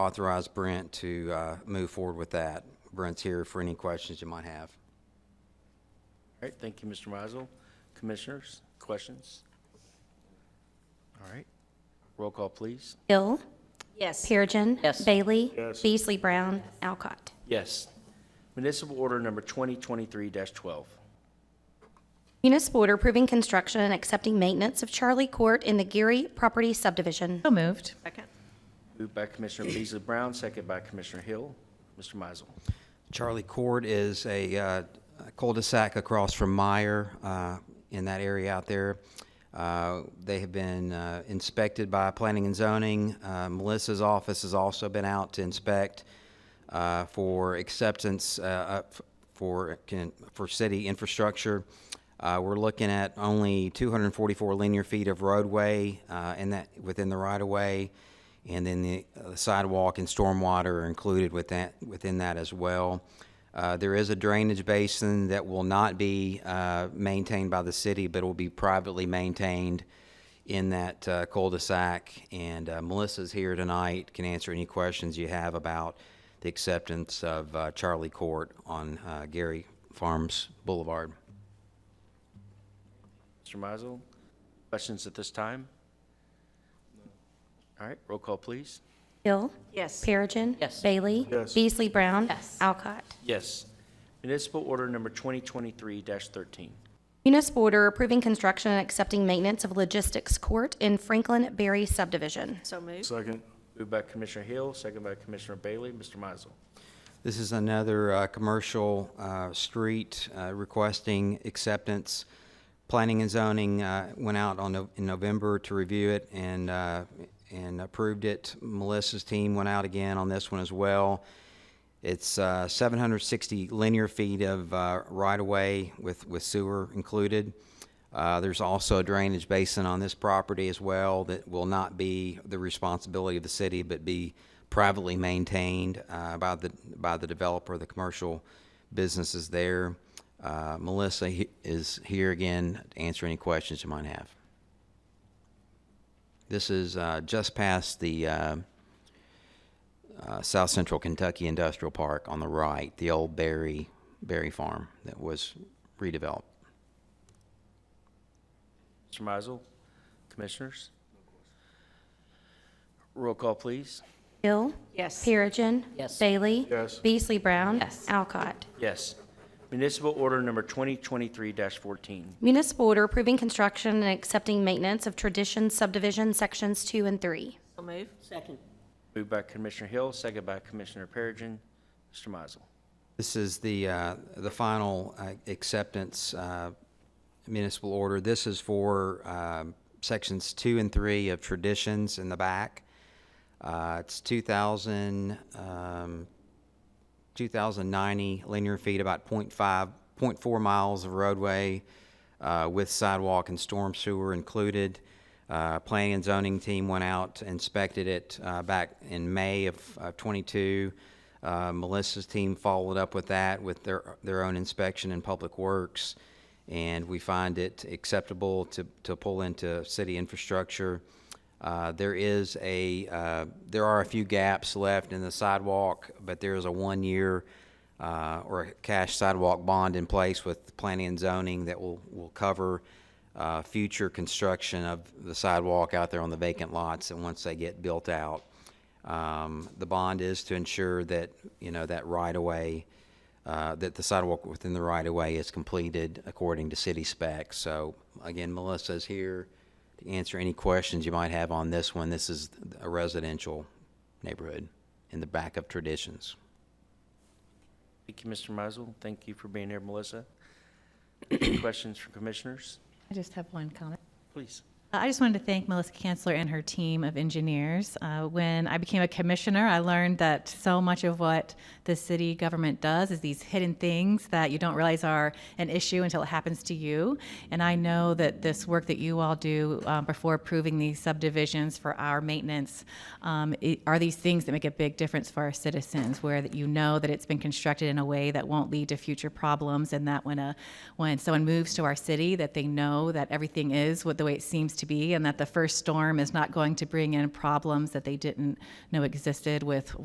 authorize Brent to uh, move forward with that. Brent's here for any questions you might have. All right, thank you, Mr. Mizel. Commissioners, questions? All right, roll call, please. Hill. Yes. Perigin. Yes. Bailey. Beasley Brown. Alcott. Yes. Municipal Order Number 2023-12. Municipal order approving construction and accepting maintenance of Charlie Court in the Geary Property Subdivision. So moved. Second. Moved by Commissioner Beasley Brown, second by Commissioner Hill. Mr. Mizel. Charlie Court is a uh, cul-de-sac across from Meyer uh, in that area out there. Uh, They have been uh, inspected by Planning and Zoning. Uh, Melissa's office has also been out to inspect uh, for acceptance uh, uh, f- for, can- for city infrastructure. Uh, We're looking at only 244 linear feet of roadway uh, in that, within the right-of-way. And then the uh, sidewalk and stormwater are included with that, within that as well. Uh, There is a drainage basin that will not be uh, maintained by the city, but will be privately maintained in that uh, cul-de-sac. And uh, Melissa's here tonight, can answer any questions you have about the acceptance of uh, Charlie Court on uh, Gary Farms Boulevard. Mr. Mizel, questions at this time? All right, roll call, please. Hill. Yes. Perigin. Yes. Bailey. Beasley Brown. Alcott. Yes. Municipal Order Number 2023-13. Municipal order approving construction and accepting maintenance of logistics court in Franklin Berry Subdivision. So moved. Second, Moved by Commissioner Hill, second by Commissioner Bailey. Mr. Mizel. This is another uh, commercial uh, street uh, requesting acceptance. Planning and zoning uh, went out on, No- in November to review it and, uh, and approved it. Melissa's team went out again on this one as well. It's uh, 760 linear feet of uh, right-of-way with, with sewer included. Uh, There's also a drainage basin on this property as well that will not be the responsibility of the city, but be privately maintained uh, by the, by the developer, the commercial businesses there. Uh, Melissa he- is here again to answer any questions you might have. This is uh, just past the uh, uh, South Central Kentucky Industrial Park on the right, the old Berry, Berry Farm that was redeveloped. Mr. Mizel, Commissioners? Roll call, please. Hill. Yes. Perigin. Yes. Bailey. Yes. Beasley Brown. Yes. Alcott. Yes. Municipal Order Number 2023-14. Municipal order approving construction and accepting maintenance of Tradition Subdivision Sections 2 and 3. So moved. Second. Moved by Commissioner Hill, second by Commissioner Perigin. Mr. Mizel. This is the, uh, the final uh, acceptance uh, municipal order. This is for um, sections two and three of traditions in the back. Uh, It's 2,000, um, 2,090 linear feet, about .5, .4 miles of roadway uh, with sidewalk and storm sewer included. Uh, Planning and zoning team went out, inspected it uh, back in May of of '22. Uh, Melissa's team followed up with that with their, their own inspection in Public Works, and we find it acceptable to, to pull into city infrastructure. Uh, There is a, uh, there are a few gaps left in the sidewalk, but there is a one-year uh, or a cash sidewalk bond in place with planning and zoning that will, will cover uh, future construction of the sidewalk out there on the vacant lots, and once they get built out. Um, The bond is to ensure that, you know, that right-of-way, uh, that the sidewalk within the right-of-way is completed according to city specs. So again, Melissa's here to answer any questions you might have on this one. This is a residential neighborhood in the back of Traditions. Thank you, Mr. Mizel. Thank you for being here, Melissa. Questions from commissioners? I just have one comment. Please. Uh, I just wanted to thank Melissa Kanzler and her team of engineers. Uh, when I became a commissioner, I learned that so much of what the city government does is these hidden things that you don't realize are an issue until it happens to you. And I know that this work that you all do uh, before approving these subdivisions for our maintenance um, i are these things that make a big difference for our citizens, where that you know that it's been constructed in a way that won't lead to future problems, and that when a when someone moves to our city, that they know that everything is what the way it seems to to be, and that the first storm is not going to bring in problems that they didn't know existed with